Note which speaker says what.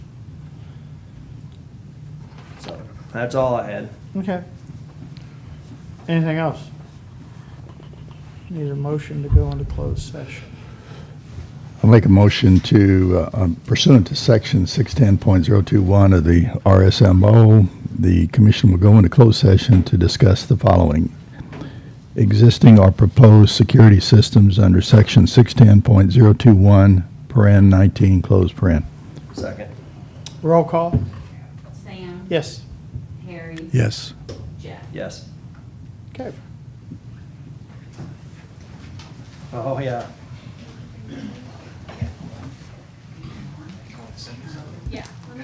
Speaker 1: So, that's all I had.
Speaker 2: Okay. Anything else? Need a motion to go into closed session.
Speaker 3: I'll make a motion to, uh, um, pursuant to section 610.021 of the RSMO, the commission will go into closed session to discuss the following. Existing or proposed security systems under section 610.021, paren 19, close paren.
Speaker 1: Second.
Speaker 2: Roll call?
Speaker 4: Sam.
Speaker 2: Yes.
Speaker 4: Harry.
Speaker 3: Yes.
Speaker 4: Jeff.
Speaker 1: Yes.
Speaker 2: Okay.
Speaker 1: Oh, yeah.